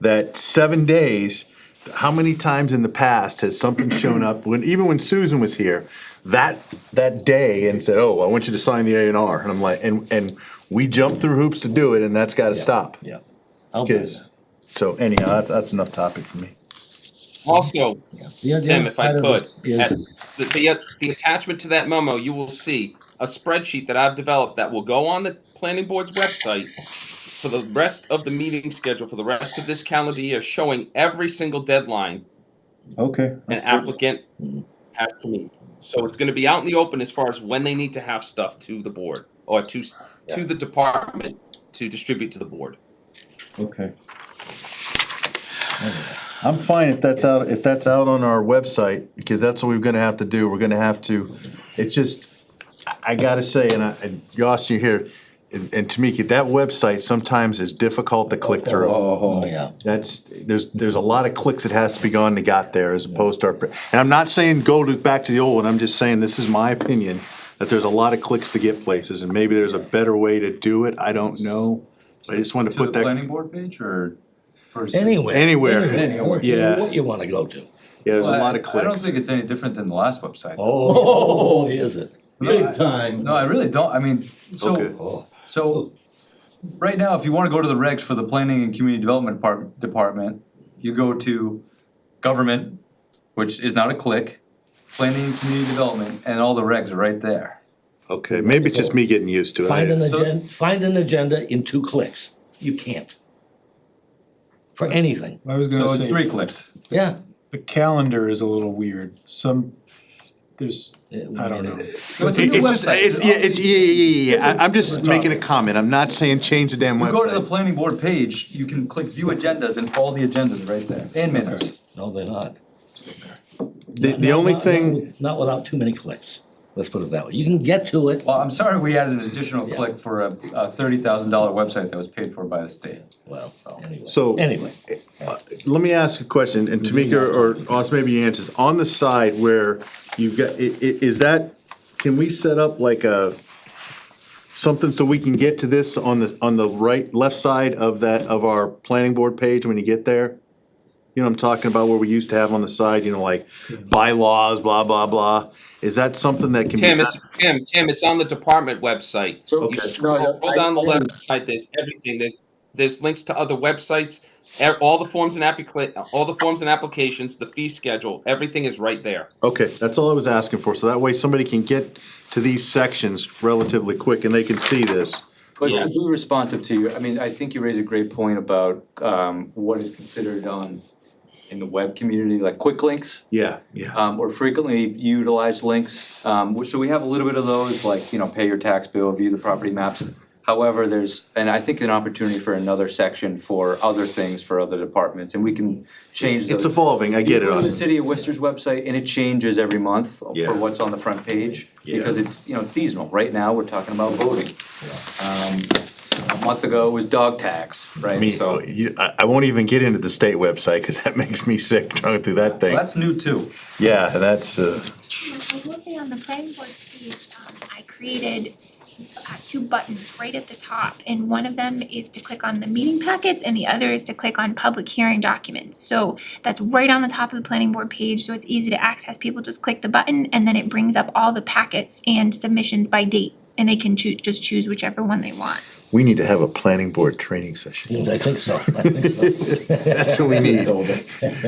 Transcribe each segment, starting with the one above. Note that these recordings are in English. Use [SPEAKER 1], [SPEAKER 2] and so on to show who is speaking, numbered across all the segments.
[SPEAKER 1] that seven days, how many times in the past has something shown up, when, even when Susan was here, that, that day and said, oh, I want you to sign the A and R, and I'm like, and, and we jumped through hoops to do it, and that's gotta stop.
[SPEAKER 2] Yeah. I'll do
[SPEAKER 1] Cause,
[SPEAKER 2] that.
[SPEAKER 1] so anyhow, that's, that's enough topic for me.
[SPEAKER 3] Also,
[SPEAKER 2] The other
[SPEAKER 3] Tim, if I
[SPEAKER 2] side of
[SPEAKER 3] could,
[SPEAKER 2] this is-
[SPEAKER 3] at- the, the, the attachment to that memo, you will see a spreadsheet that I've developed that will go on the planning board's website for the rest of the meeting schedule for the rest of this calendar year, showing every single deadline
[SPEAKER 4] Okay.
[SPEAKER 3] an
[SPEAKER 4] that's good.
[SPEAKER 3] applicant has to meet. So it's gonna be out in the open as far as when they need to have stuff to the board or to, s- to the department to distribute to the board.
[SPEAKER 4] Okay.
[SPEAKER 1] I'm fine if that's out, if that's out on our website, because that's what we're gonna have to do, we're gonna have to, it's just, I- I gotta say, and I, and Yoss, you're here, and, and Tamiki, that website sometimes is difficult to click through.
[SPEAKER 2] Oh, yeah.
[SPEAKER 1] That's, there's, there's a lot of clicks that has to be gone to got there as opposed to our, and I'm not saying go to, back to the old one, I'm just saying, this is my opinion, that there's a lot of clicks to get places, and maybe there's a better way to do it, I don't know. I just wanted to
[SPEAKER 5] To
[SPEAKER 1] put
[SPEAKER 5] the
[SPEAKER 1] that,
[SPEAKER 5] planning board page or first?
[SPEAKER 2] Anywhere.
[SPEAKER 1] Anywhere.
[SPEAKER 2] Anywhere.
[SPEAKER 1] Yeah.
[SPEAKER 2] What you wanna go to.
[SPEAKER 1] yeah, there's
[SPEAKER 5] Well,
[SPEAKER 1] a
[SPEAKER 5] I-
[SPEAKER 1] lot of
[SPEAKER 5] I don't
[SPEAKER 1] clicks.
[SPEAKER 5] think it's any different than the last website.
[SPEAKER 2] Oh, is it?
[SPEAKER 5] Big
[SPEAKER 2] time.
[SPEAKER 5] No, I really don't, I mean,
[SPEAKER 1] Okay.
[SPEAKER 5] so,
[SPEAKER 2] Oh,
[SPEAKER 5] so, right now, if you wanna go to the regs for the planning and community development part, department, you go to government, which is not a click, planning and community development, and all the regs are right there.
[SPEAKER 1] Okay, maybe it's just me getting used to it.
[SPEAKER 2] Find
[SPEAKER 1] I-
[SPEAKER 2] an agenda, find an agenda in two clicks. You can't. For anything,
[SPEAKER 6] I was
[SPEAKER 5] So
[SPEAKER 6] gonna
[SPEAKER 5] it's
[SPEAKER 6] say,
[SPEAKER 5] three clicks.
[SPEAKER 2] yeah.
[SPEAKER 6] the calendar is a little weird. Some, there's, I don't know.
[SPEAKER 5] So it's a
[SPEAKER 1] It-
[SPEAKER 5] new
[SPEAKER 1] It's just,
[SPEAKER 5] website.
[SPEAKER 1] it's, yeah, it's, yeah, yeah, yeah, yeah, I- I'm just making a comment, I'm not saying change the damn
[SPEAKER 5] You go to the
[SPEAKER 1] website.
[SPEAKER 5] planning board page, you can click view agendas and all the agendas are right there, and minutes.
[SPEAKER 2] No, they're not.
[SPEAKER 1] The, the only
[SPEAKER 2] Not- not-
[SPEAKER 1] thing,
[SPEAKER 2] Not without too many clicks, let's put it that way. You can get to it,
[SPEAKER 5] Well, I'm sorry we added an additional click for a, a thirty thousand dollar website that was paid for by the state.
[SPEAKER 2] well, anyway,
[SPEAKER 1] So-
[SPEAKER 2] anyway.
[SPEAKER 1] let me ask a question, and Tamika or Os, maybe you answers, on the side where you've got, i- i- is that, can we set up like a, something so we can get to this on the, on the right, left side of that, of our planning board page when you get there? You know, what I'm talking about where we used to have on the side, you know, like bylaws, blah, blah, blah, is that something that can be?
[SPEAKER 3] Tim,
[SPEAKER 1] done?
[SPEAKER 3] it's, Tim, Tim, it's on the department website.
[SPEAKER 7] So-
[SPEAKER 3] You
[SPEAKER 1] Okay.
[SPEAKER 3] scroll
[SPEAKER 7] No, I-
[SPEAKER 3] scroll down the
[SPEAKER 7] I-
[SPEAKER 3] left side, there's everything, there's, there's links to other websites, e- all the forms and applica, all the forms and applications, the fee schedule, everything is right there.
[SPEAKER 1] Okay, that's all I was asking for, so that way somebody can get to these sections relatively quick and they can see this.
[SPEAKER 7] But to
[SPEAKER 3] Yes.
[SPEAKER 7] be responsive to you, I mean, I think you raise a great point about um what is considered on in the web community, like quick links
[SPEAKER 1] Yeah, yeah,
[SPEAKER 7] um or frequently utilized links. Um which- so we have a little bit of those, like, you know, pay your tax bill, view the property maps. However, there's, and I think an opportunity for another section for other things for other departments, and we can change those.
[SPEAKER 1] it's evolving, I get it,
[SPEAKER 7] You go to the
[SPEAKER 1] Austin.
[SPEAKER 7] city of Worcester's website and it changes every month
[SPEAKER 1] Yeah.
[SPEAKER 7] for what's on the front page.
[SPEAKER 1] Yeah.
[SPEAKER 7] Because it's, you know, it's seasonal. Right now, we're talking about voting. Um, a month ago it was dog tax,
[SPEAKER 1] I
[SPEAKER 7] right?
[SPEAKER 1] mean,
[SPEAKER 7] So,
[SPEAKER 1] you- I, I won't even get into the state website, cause that makes me sick trying through that thing.
[SPEAKER 5] That's new too.
[SPEAKER 1] Yeah, that's, uh,
[SPEAKER 8] I will say on the planning board page, um, I created uh, two buttons right at the top. And one of them is to click on the meeting packets and the other is to click on public hearing documents. So that's right on the top of the planning board page, so it's easy to access. People just click the button and then it brings up all the packets and submissions by date. And they can choo- just choose whichever one they want.
[SPEAKER 1] we need to have a planning board training session.
[SPEAKER 2] I think so. I think so.
[SPEAKER 1] That's what we need.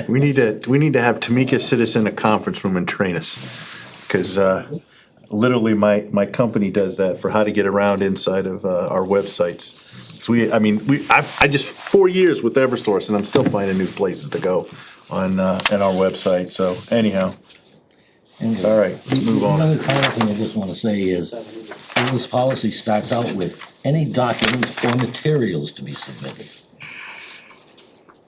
[SPEAKER 1] We need to, we need to have Tamika sit us in a conference room and train us. Cause, uh, literally my, my company does that for how to get around inside of, uh, our websites. So we, I mean, we, I, I just, four years with Eversource and I'm still finding new places to go on, uh, on our website, so anyhow. All right, let's move on.
[SPEAKER 2] Another final thing I just wanna say is, this policy starts out with any documents or materials to be submitted.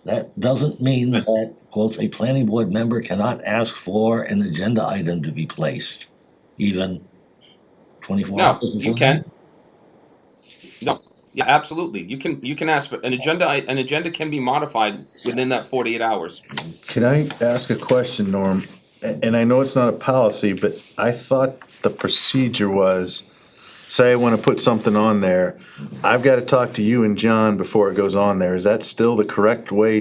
[SPEAKER 2] That doesn't mean that, quote, a planning board member cannot ask for an agenda item to be placed, even twenty-four
[SPEAKER 3] No,
[SPEAKER 2] hours.
[SPEAKER 3] you
[SPEAKER 2] before
[SPEAKER 3] can.
[SPEAKER 2] the-
[SPEAKER 3] No, yeah, absolutely. You can, you can ask for, an agenda, i- an agenda can be modified within that forty-eight hours.
[SPEAKER 1] Can I ask a question, Norm? A- And I know it's not a policy, but I thought the procedure was, say I wanna put something on there, I've gotta talk to you and John before it goes on there. Is that still the correct way